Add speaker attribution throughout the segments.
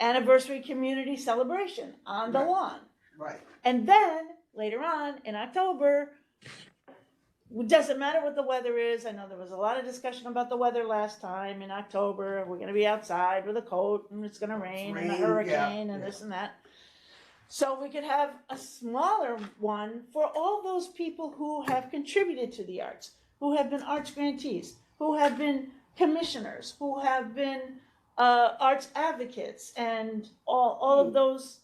Speaker 1: anniversary community celebration on the
Speaker 2: Right.
Speaker 1: lawn.
Speaker 2: Right,
Speaker 1: And then later on in October, it doesn't matter what the weather is. I know there was a lot of discussion about the weather last time in October. We're going to be outside with a coat and it's going to rain, and a
Speaker 2: Rain, yeah,
Speaker 1: hurricane and
Speaker 2: yeah.
Speaker 1: this and that. So we could have a smaller one for all those people who have contributed to the arts, who have been arts grantees, who have been commissioners, who have been uh, arts advocates, and all, all of those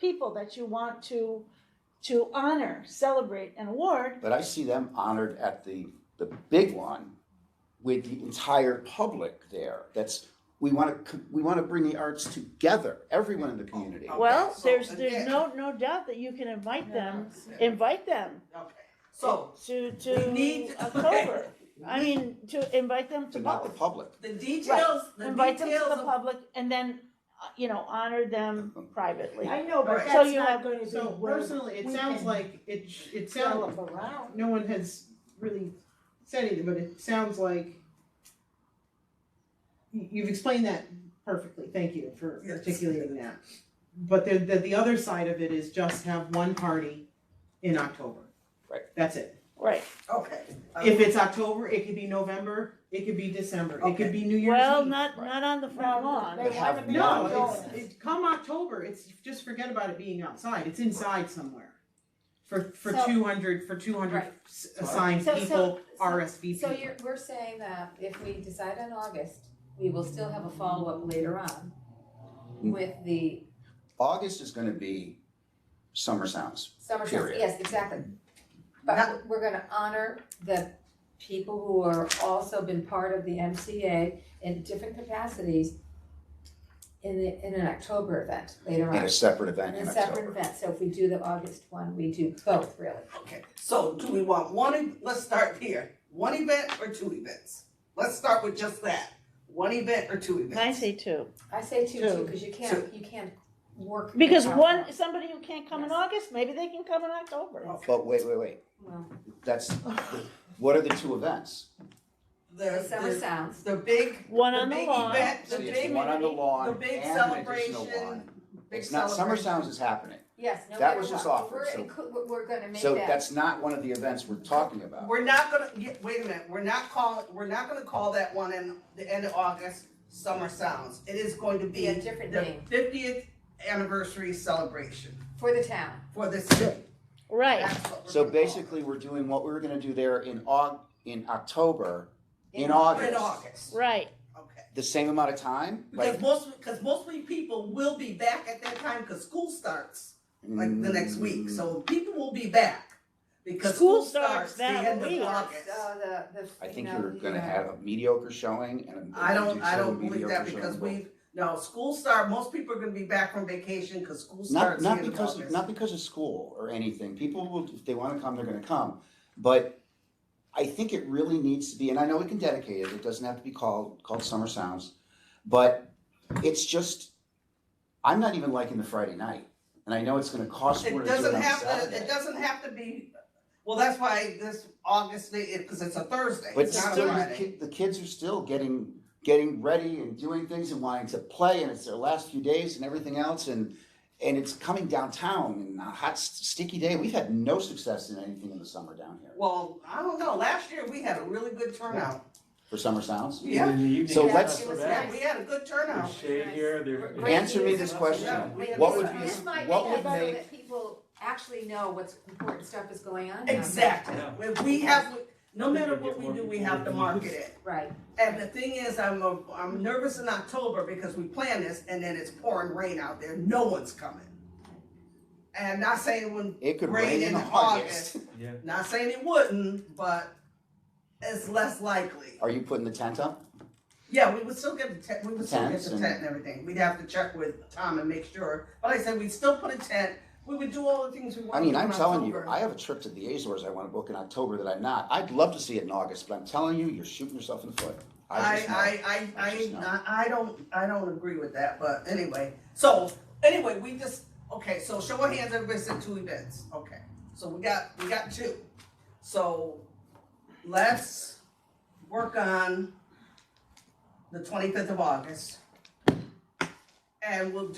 Speaker 1: people that you want to to honor, celebrate, and award.
Speaker 3: But I see them honored at the, the big one with the entire public there. That's, we want to, we want to bring the arts together, everyone in the community.
Speaker 2: Okay,
Speaker 1: Well,
Speaker 2: so
Speaker 1: there's there's
Speaker 2: again-
Speaker 1: no no doubt that you can invite them,
Speaker 2: Yeah.
Speaker 1: invite them
Speaker 2: okay, so,
Speaker 1: to to
Speaker 2: We need-
Speaker 1: October. I mean, to invite them to
Speaker 3: But not the
Speaker 1: both,
Speaker 3: public.
Speaker 2: the details, the
Speaker 1: invite them to
Speaker 2: details
Speaker 1: the
Speaker 2: of,
Speaker 1: public, and then uh, you know honor them privately.
Speaker 4: I know, but
Speaker 2: Right.
Speaker 1: So
Speaker 4: that's
Speaker 1: you have-
Speaker 4: not gonna be
Speaker 5: So
Speaker 4: where
Speaker 5: personally, it
Speaker 4: we
Speaker 5: sounds
Speaker 4: can
Speaker 5: like it, sh- it sounds,
Speaker 4: gallop around.
Speaker 5: no one has really said anything, but it sounds like you- you've explained that perfectly, thank you for
Speaker 2: Yes.
Speaker 5: articulating that. But the, the, the other side of it is just have one party in October.
Speaker 3: Right.
Speaker 5: That's it.
Speaker 1: Right.
Speaker 2: okay.
Speaker 4: Oh.
Speaker 5: If it's October, it could be November, it could be December, it
Speaker 2: Okay.
Speaker 5: could be New Year's Eve.
Speaker 1: Well, not
Speaker 3: Right.
Speaker 1: not on the front
Speaker 4: No,
Speaker 1: lawn.
Speaker 4: They
Speaker 3: But have
Speaker 4: haven't been
Speaker 3: one.
Speaker 5: No,
Speaker 4: going.
Speaker 5: it's, it, come October, it's, just forget about it being outside, it's inside somewhere. For, for
Speaker 6: So-
Speaker 5: two hundred, for two hundred
Speaker 6: Right.
Speaker 5: assigned
Speaker 6: So- so-
Speaker 5: people,
Speaker 6: so-
Speaker 5: RSVP.
Speaker 6: So you're, we're saying that if we decide on August, we will still have a follow-up later on
Speaker 3: Mm.
Speaker 6: with the
Speaker 3: August is going to be summer sounds.
Speaker 6: summer camp,
Speaker 3: Period.
Speaker 6: yes, exactly.
Speaker 2: Now-
Speaker 6: But we're gonna honor the people who are also been part of the MCA in different capacities in the, in an October event later
Speaker 3: And
Speaker 6: on,
Speaker 3: a separate event
Speaker 6: in
Speaker 3: in
Speaker 6: a separate
Speaker 3: October.
Speaker 6: event, so if we do the August one, we do both, really.
Speaker 2: Okay, so do we want one, e- let's start here, one event or two events? Let's start with just that, one event or two events?
Speaker 1: I say two
Speaker 6: I say two,
Speaker 1: Two.
Speaker 6: two, cause you can't, you can't work.
Speaker 1: because
Speaker 6: without
Speaker 1: one
Speaker 6: that.
Speaker 1: somebody who can't come in
Speaker 6: Yes.
Speaker 1: August, maybe they can come in October.
Speaker 2: Okay,
Speaker 3: But wait, wait, wait.
Speaker 6: Well,
Speaker 3: That's, what are the two events?
Speaker 6: the
Speaker 2: there's,
Speaker 6: summer
Speaker 2: there's
Speaker 6: sounds,
Speaker 2: the big,
Speaker 1: One
Speaker 2: The
Speaker 1: on the
Speaker 2: big
Speaker 1: lawn.
Speaker 2: event. The
Speaker 3: See, it's
Speaker 2: big-
Speaker 3: one on the lawn
Speaker 2: the
Speaker 3: and
Speaker 2: big
Speaker 3: an additional
Speaker 2: celebration,
Speaker 3: one.
Speaker 2: big
Speaker 3: It's not, summer
Speaker 2: celebration.
Speaker 3: sounds is happening.
Speaker 6: yes, no
Speaker 3: That
Speaker 6: matter
Speaker 3: was just
Speaker 6: what,
Speaker 3: offered,
Speaker 6: we're
Speaker 3: so-
Speaker 6: inclu- we're- we're gonna make that.
Speaker 3: So that's not one of the events we're talking about.
Speaker 2: We're not gonna, yeah, wait a minute, we're not calling, we're not gonna call that one in the end of August Summer Sounds. It is going to
Speaker 6: be a
Speaker 2: be
Speaker 6: different
Speaker 2: the
Speaker 6: name
Speaker 2: fiftieth anniversary celebration
Speaker 6: for the town.
Speaker 2: for the city.
Speaker 1: Right.
Speaker 2: That's what we're
Speaker 3: So
Speaker 2: gonna call it.
Speaker 3: basically, we're doing what we were gonna do there in Aug, in October, in
Speaker 2: But In
Speaker 3: August,
Speaker 2: August,
Speaker 1: Right.
Speaker 2: okay.
Speaker 3: the same amount of time,
Speaker 2: Because
Speaker 3: like.
Speaker 2: most, because most of you people will be back at that time, because school starts like the
Speaker 3: mm,
Speaker 2: next week, so people will be back. Because
Speaker 1: School
Speaker 2: school
Speaker 1: starts
Speaker 2: starts the
Speaker 1: that
Speaker 2: end of
Speaker 1: week.
Speaker 2: August.
Speaker 6: Uh, the, the.
Speaker 3: I
Speaker 6: you
Speaker 3: think
Speaker 6: know,
Speaker 3: you're
Speaker 6: the,
Speaker 3: gonna
Speaker 6: uh,
Speaker 3: have a mediocre showing and. a-
Speaker 2: I don't, I
Speaker 3: so
Speaker 2: don't believe that
Speaker 3: mediocre
Speaker 2: because
Speaker 3: showing.
Speaker 2: we, no, school start, most people are gonna be back from vacation because school
Speaker 3: Not,
Speaker 2: starts the
Speaker 3: not
Speaker 2: end of
Speaker 3: because, of-
Speaker 2: August.
Speaker 3: not because of school or anything, people will, if they wanna come, they're gonna come, but I think it really needs to be, and I know we can dedicate it, it doesn't have to be called, called Summer Sounds, but it's just, I'm not even liking the Friday night, and I know it's gonna cost more
Speaker 2: It
Speaker 3: to do it
Speaker 2: doesn't
Speaker 3: on
Speaker 2: have to,
Speaker 3: Saturday.
Speaker 2: it doesn't have to be, well, that's why this August, because it's a Thursday,
Speaker 3: But
Speaker 2: it's not a
Speaker 3: still, the,
Speaker 2: Friday.
Speaker 3: ki- the kids are still getting getting ready and doing things and wanting to play, and it's their last few days and everything else, and and it's coming downtown and a hot s- sticky day. We've had no success in anything in the summer down here
Speaker 2: Well, I don't know, last year we had a really good turnout.
Speaker 3: for summer sounds.
Speaker 2: Yeah.
Speaker 7: In the evening,
Speaker 3: So
Speaker 7: it's
Speaker 3: let's-
Speaker 7: not
Speaker 6: It was
Speaker 7: bad.
Speaker 2: Yeah,
Speaker 6: nice.
Speaker 2: we had a good turnout.
Speaker 7: There's shade here, there-
Speaker 6: Great
Speaker 3: Answer me
Speaker 6: news.
Speaker 3: this
Speaker 2: Yeah,
Speaker 3: question:
Speaker 2: we had
Speaker 3: What
Speaker 2: a good
Speaker 3: would be
Speaker 2: turnout.
Speaker 6: This might
Speaker 3: what
Speaker 6: make
Speaker 3: would
Speaker 6: it better
Speaker 3: make-
Speaker 6: that people actually know what's important stuff is going on. down there.
Speaker 2: Exactly,
Speaker 7: Yeah.
Speaker 2: If we have, no matter what we do, we have to market it.
Speaker 6: Right,
Speaker 2: And the thing is, I'm, a, I'm nervous in October because we plan this and then it's pouring rain out there. No one's coming. And not saying when,
Speaker 3: It could
Speaker 2: Rain
Speaker 3: rain
Speaker 2: in
Speaker 3: in August.
Speaker 7: Yeah.
Speaker 2: not saying it wouldn't, but it's less likely.
Speaker 3: Are you putting the tent up?
Speaker 2: Yeah, we would still get the tent, we would still get
Speaker 3: Tents
Speaker 2: the
Speaker 3: and-
Speaker 2: tent and everything. We'd have to check with Tom and make sure. But like I said, we'd still put a tent. We would do all the things we
Speaker 3: I
Speaker 2: want to
Speaker 3: mean,
Speaker 2: do in
Speaker 3: I'm telling you,
Speaker 2: October.
Speaker 3: I have a trip to the Azores I want to book in October that I'm not. I'd love to see it in August, but I'm telling you, you're shooting yourself in the foot. I just know.
Speaker 2: I, I, I,
Speaker 3: I just know.
Speaker 2: I, I don't, I don't agree with that, but anyway, so, anyway, we just, okay, so show of hands, everybody said two events, okay, so we got, we got two. So, let's work on the twenty-fifth of August. and we'll